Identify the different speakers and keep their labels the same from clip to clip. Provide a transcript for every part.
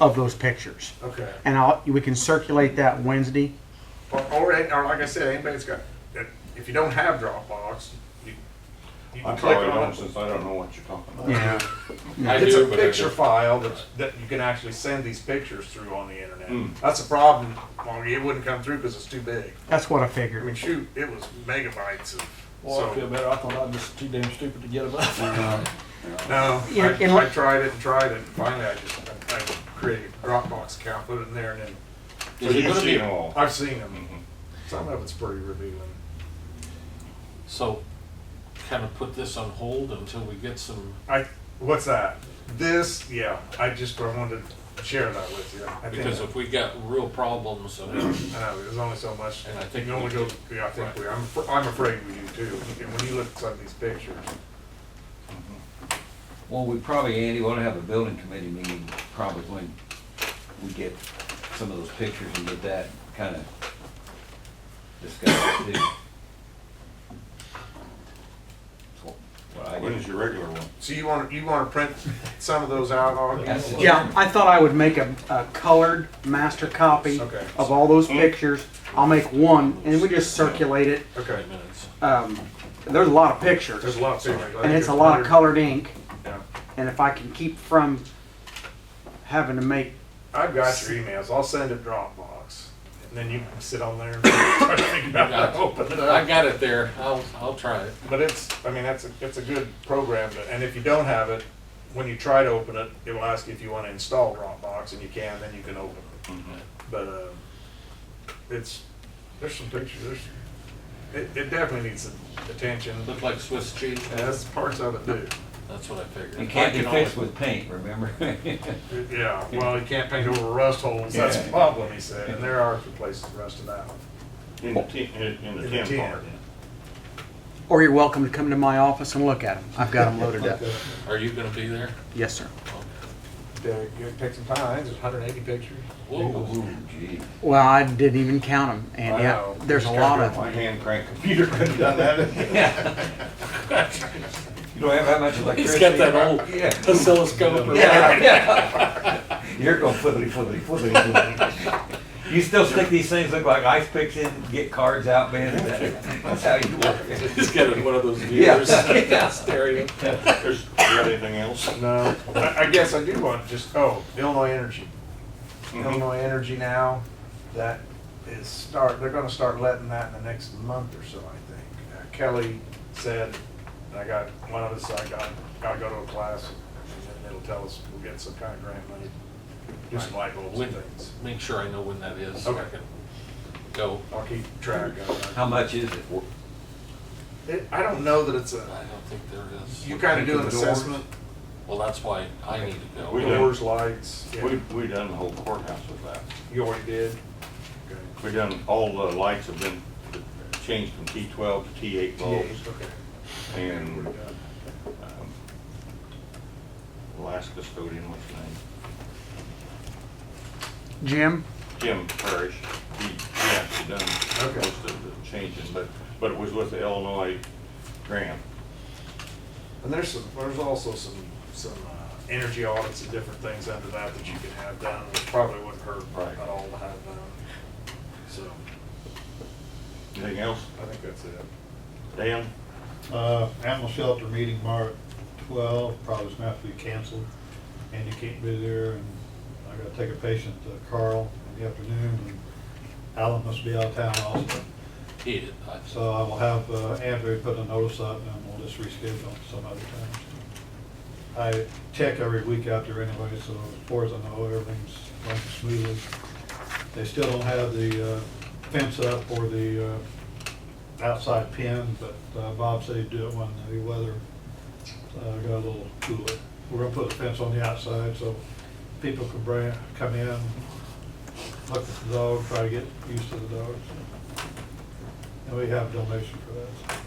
Speaker 1: of those pictures.
Speaker 2: Okay.
Speaker 1: And I'll, we can circulate that Wednesday.
Speaker 2: Or, or, it- or like I said, anybody that's got, that- if you don't have Dropbox, you, you
Speaker 3: I
Speaker 2: can click
Speaker 3: probably
Speaker 2: on
Speaker 3: don't,
Speaker 2: it.
Speaker 3: since I don't know what you're talking about.
Speaker 1: Yeah.
Speaker 4: I
Speaker 2: It's a
Speaker 4: do, but I
Speaker 2: picture
Speaker 4: just,
Speaker 2: file that, that you can actually send these pictures through on the internet.
Speaker 3: Mm.
Speaker 2: That's a problem, Well, it wouldn't come through because it's too big.
Speaker 1: That's what I
Speaker 2: I mean,
Speaker 1: figured.
Speaker 2: shoot, it was megabytes of,
Speaker 5: Well, I feel
Speaker 2: so,
Speaker 5: better. I thought I was just too damn stupid to get them up.
Speaker 2: no,
Speaker 1: Yeah, and-
Speaker 2: I, I tried it and tried it, and finally I just, I I created a Dropbox account, put it in there, and then,
Speaker 3: So
Speaker 4: Is it
Speaker 3: you've
Speaker 4: gonna be-
Speaker 3: seen them all.
Speaker 2: I've seen them.
Speaker 3: Mhm.
Speaker 2: Some of it's pretty revealing.
Speaker 4: so kind of put this on hold until we get some,
Speaker 2: I, what's that? This, yeah, I just I wanted to share that with you. I
Speaker 4: because
Speaker 2: think,
Speaker 4: if we got real problems and
Speaker 2: I know, there's only so much,
Speaker 4: And I think
Speaker 2: you can only
Speaker 4: we
Speaker 2: go, yeah, I think
Speaker 4: Right.
Speaker 2: we, I'm, af- I'm afraid we do too. And when you look at some of these pictures,
Speaker 6: Well, we probably, Andy, want to have a building committee meeting probably when we get some of those pictures and get that kind of discussed too. That's what- what I
Speaker 3: When
Speaker 6: get.
Speaker 3: is your regular one?
Speaker 2: so you wanna, you wanna print some of those out, Augie?
Speaker 6: That's it.
Speaker 1: Yeah, I thought I would make a, a colored master copy
Speaker 2: Okay.
Speaker 1: of all those pictures. I'll make one and we just circulate it.
Speaker 2: Okay,
Speaker 4: five minutes.
Speaker 1: Um, there's a lot of pictures.
Speaker 2: there's a lot of pictures. I
Speaker 1: And
Speaker 2: think
Speaker 1: it's a lot of
Speaker 2: there's-
Speaker 1: colored ink,
Speaker 2: yeah.
Speaker 1: and if I can keep from having to make,
Speaker 2: I've got your emails, I'll send it Dropbox, and then you can sit on there and try to figure out how to open it
Speaker 4: I
Speaker 2: up.
Speaker 4: got it there, I'll, I'll try it.
Speaker 2: But it's, I mean, that's, a it's a good program, but- and if you don't have it, when you try to open it, it will ask you if you wanna install Dropbox, and you can, then you can open it. But, um, it's, there's some pictures, there's, it, it definitely needs some attention, and
Speaker 4: Looked like Swiss cheese,
Speaker 2: that's parts of it too.
Speaker 4: that's what I figured.
Speaker 6: It can't
Speaker 4: I
Speaker 6: be
Speaker 4: can
Speaker 6: fixed
Speaker 4: only-
Speaker 6: with paint, remember?
Speaker 2: Yeah, well, you can't paint over rust holes, that's the
Speaker 6: Yeah.
Speaker 2: problem, he said, and there are some places rusted out.
Speaker 3: In the ten, in in
Speaker 2: In the
Speaker 3: the ten
Speaker 2: tin.
Speaker 3: part.
Speaker 1: or you're welcome to come to my office and look at them. I've got them loaded up.
Speaker 4: Are you gonna be there?
Speaker 1: Yes, sir.
Speaker 2: to go pick some pines, there's 180 pictures.
Speaker 4: Whoa,
Speaker 6: Ooh, gee.
Speaker 1: Well, I didn't even count them, and
Speaker 2: I
Speaker 1: yeah,
Speaker 2: know.
Speaker 1: there's a lot of
Speaker 3: My
Speaker 1: them.
Speaker 3: hand crank computer could have done that.
Speaker 6: You don't have that much
Speaker 4: he's got
Speaker 6: electricity.
Speaker 4: that old
Speaker 6: Yeah.
Speaker 4: oscilloscope or
Speaker 6: Yeah,
Speaker 4: whatever.
Speaker 6: yeah. You're going flippity, flippity, flippity, flippity. You still stick these things, look like ice picks in, get cards out, man, that- that's how you work it.
Speaker 4: He's got one of those viewers,
Speaker 6: Yeah.
Speaker 4: stereo.
Speaker 3: There's, you got anything else?
Speaker 2: No, I, I guess I do want just oh Illinois Energy,
Speaker 3: Mhm.
Speaker 2: Illinois Energy now, that is start. They're going to start letting that in the next month or so, I think. Uh, Kelly said, and I got one of us. I got got to go to a class, and then it'll tell us we'll get some kind of grant money, do some light bulbs and
Speaker 4: When-
Speaker 2: things.
Speaker 4: Make sure I know when that is, so I
Speaker 2: Okay.
Speaker 4: can go.
Speaker 2: I'll keep track of
Speaker 6: How much is it?
Speaker 2: it. it. I don't know that it's
Speaker 4: I
Speaker 2: a.
Speaker 4: don't think there is.
Speaker 2: You kind of do an
Speaker 6: Doors.
Speaker 2: assessment.
Speaker 4: Well, that's why I need to go.
Speaker 3: We
Speaker 2: Doors, lights. yeah.
Speaker 3: We, we done the whole courthouse with that.
Speaker 2: You already did?
Speaker 3: We done, all the lights have been changed from T twelve to T eight bulbs. And um, the last custodian, what's his name?
Speaker 1: Jim,
Speaker 3: Jim Parrish, he, he actually done most of the changes, but, but it was with the Illinois grant.
Speaker 2: And there's some, there's also some, some uh, energy audits and different things under that that you can have done, which probably wouldn't hurt
Speaker 3: Right.
Speaker 2: at all to have done. So,
Speaker 3: Anything else?
Speaker 2: I think that's it.
Speaker 3: Dan?
Speaker 7: Uh, animal shelter meeting March twelve, probably is gonna have to be canceled. Andy can't be there, and I gotta take a patient to Carl in the afternoon, and Alan must be out of town also.
Speaker 4: He did. I-
Speaker 7: So I will have, uh, Andrew put a notice up, and we'll just reschedule some other time. I check every week out there anyway, so as far as I know, everything's running smoothly. They still don't have the, uh, fence up or the, uh, outside pin, but uh, Bob said he'd do it when the weather uh, got a little cooler. We're gonna put a fence on the outside so people can bring, come in, look at the dog, try to get used to the dogs. And we have donation for that.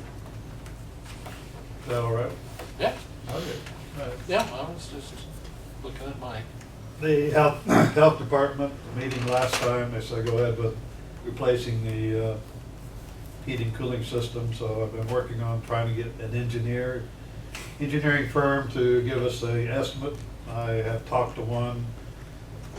Speaker 7: Is that all right?
Speaker 4: Yeah,
Speaker 7: Okay.
Speaker 4: yeah, I was just looking at my,
Speaker 7: The health, health department, the meeting last time, they said go ahead with replacing the uh, heating cooling system, so I've been working on trying to get an engineer, engineering firm to give us a estimate. I have talked to one